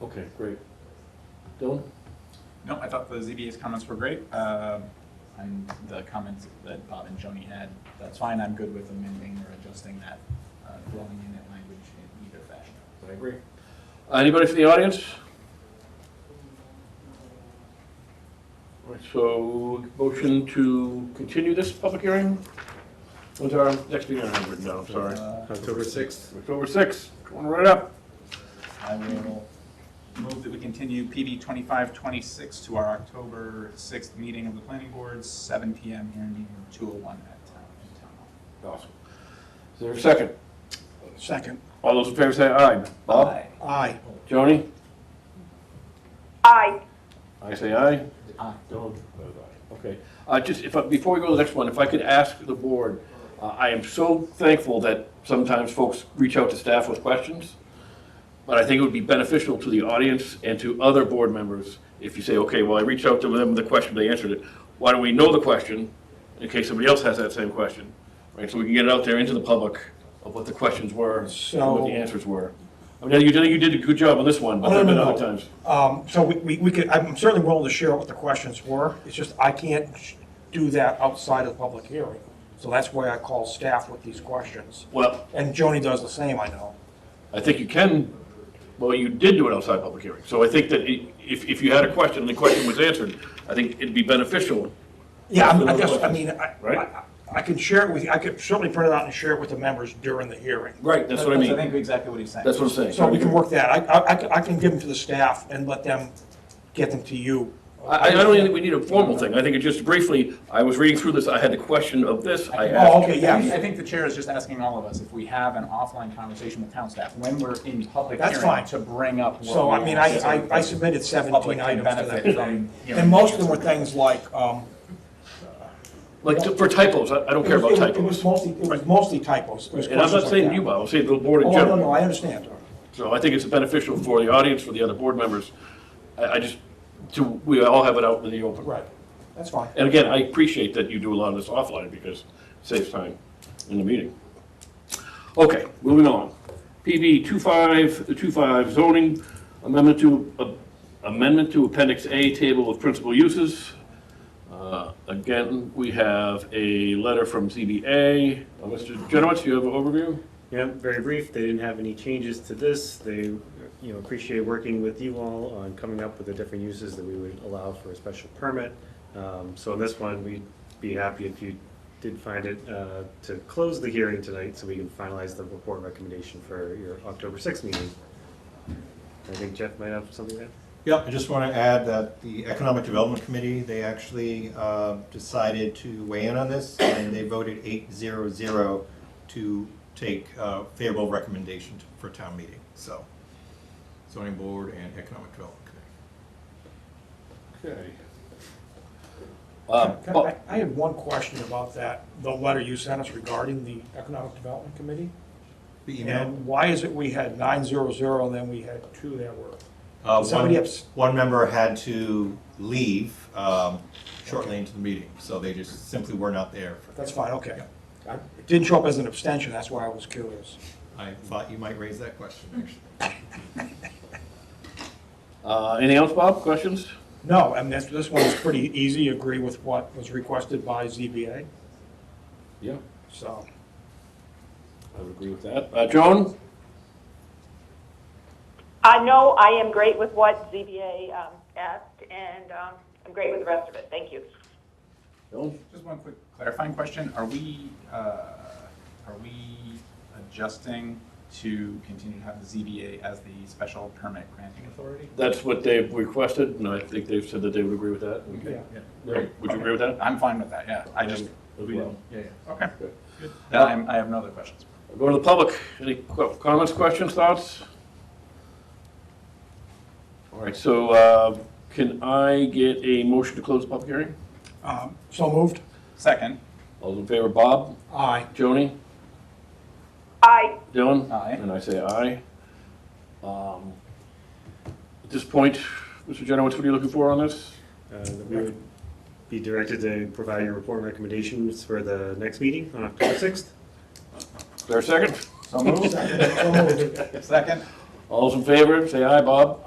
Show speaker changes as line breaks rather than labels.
Okay, great. Dylan?
No, I thought the ZBA's comments were great. Um, And the comments that Bob and Joni had, that's fine, I'm good with amending or adjusting that uh, dwelling unit language in either fashion.
I agree. Anybody from the audience? All right, so motion to continue this public hearing? When's our next meeting? I have written down, I'm sorry.
Uh,
October 6th.
October 6th, going right up.
I will move that we continue PB 2526 to our October 6th meeting of the planning board, 7 PM here in meeting room 201 at Town in Town Hall.
Awesome. Is there a second?
Second.
All those in favor say aye. Bob?
Aye.
Aye.
Joni?
Aye.
I say aye.
Aye.
Don't. Okay, uh, just if, I- before we go to the next one, if I could ask the board, uh, I am so thankful that sometimes folks reach out to staff with questions, but I think it would be beneficial to the audience and to other board members if you say, okay, well, I reached out to them with a question, they answered it. Why don't we know the question in case somebody else has that same question? Right, so we can get it out there into the public of what the questions were and what
So-
the answers were. I mean, you did, you did a good job on this one, but
Oh, no,
there have been
no, no.
other times.
Um, So we- we we could, I'm certainly willing to share what the questions were. It's just I can't sh- do that outside of the public hearing. So that's why I call staff with these questions.
Well,
And Joni does the same, I know.
I think you can, well, you did do it outside public hearing. So I think that i- if, if you had a question and the question was answered, I think it'd be beneficial.
Yeah, I'm- I guess, I mean, I- I-
Right.
I I can share it with, you. I could certainly print it out and share it with the members during the hearing.
Right. That's what I
I
mean.
think exactly what he's saying.
That's what I'm
So
saying.
we can work that. I- I I can- I can give them to the staff and let them get them to you.
I, I don't think we need a formal thing. I think it just briefly, I was reading through this, I had the question of this, I
Oh,
asked.
I
okay,
think- I
yeah.
think the chair is just asking all of us if we have an offline conversation with town staff when we're in public
That's
hearing
fine.
to bring up what
So, I
we
mean, I
asked.
I I submitted
Public
17
can
items to them
benefit
today.
from hearing.
And most of them were things like, um,
Like t- for typos, I, I don't care
It
about
was- it was-
typos.
It was mostly, it was mostly typos. It was
And I'm
questions
not
like
saying
that.
you, Bob, I'm saying the board
Oh,
in
no, no,
general.
I understand.
So I think it's beneficial for the audience, for the other board members. I, I just, to, we all have it out in the open.
Right, that's fine.
And again, I appreciate that you do a lot of this offline because it saves time in the meeting. Okay, moving on. PB 2525 zoning amendment to, uh, amendment to Appendix A, Table of Principal Uses. Uh, Again, we have a letter from ZBA. Uh, Mr. Genowitz, you have an overview?
Yeah, very brief. They didn't have any changes to this. They, you know, appreciate working with you all on coming up with the different uses that we would allow for a special permit. Um, So on this one, we'd be happy if you did find it uh, to close the hearing tonight so we can finalize the report recommendation for your October 6th meeting. I think Jeff might have something there.
Yeah, I just want to add that the Economic Development Committee, they actually uh, decided to weigh in on this, and they voted eight zero zero to take uh, favorable recommendation for town meeting, so. Zoning Board and Economic Development Committee.
Okay. Uh,
Can I I had one question about that, the letter you sent us regarding the Economic Development Committee.
The email,
And why is it we had 900 and then we had two that were?
uh,
somebody
one,
abs-
one member had to leave um, shortly into the meeting, so they just simply were not there. for-
That's fine, okay. I- It didn't show up as an abstention, that's why I was curious.
I thought you might raise that question, actually.
Uh, Anything else, Bob? Questions?
No, I mean, this, this one was pretty easy, agree with what was requested by ZBA,
Yeah.
so.
I would agree with that. Uh, Joan?
I know I am great with what ZBA um, asked, and um, I'm great with the rest of it. Thank you.
Joan?
Just one quick clarifying question. Are we, uh, are we adjusting to continue to have the ZBA as the special permit granting authority?
That's what they've requested, and I think they've said that they would agree with that.
Yeah.
Would you agree with that?
I'm fine with that, yeah. I just,
As
we
well.
didn't, yeah, yeah. Okay, good. Then I'm, I have no other questions.
Go to the public. Any qu- comments, questions, thoughts? All right, so uh, can I get a motion to close the public hearing?
Um, So moved?
Second,
All those in favor, Bob,
Aye.
Joni,
Aye.
Dylan?
Aye.
And I say aye. Um, At this point, Mr. Genowitz, what are you looking for on this?
Uh, that We would be directed to provide your report recommendations for the next meeting on October 6th.
Is there a second?
so moved.
So moved.
Second.
All those in favor, say aye, Bob.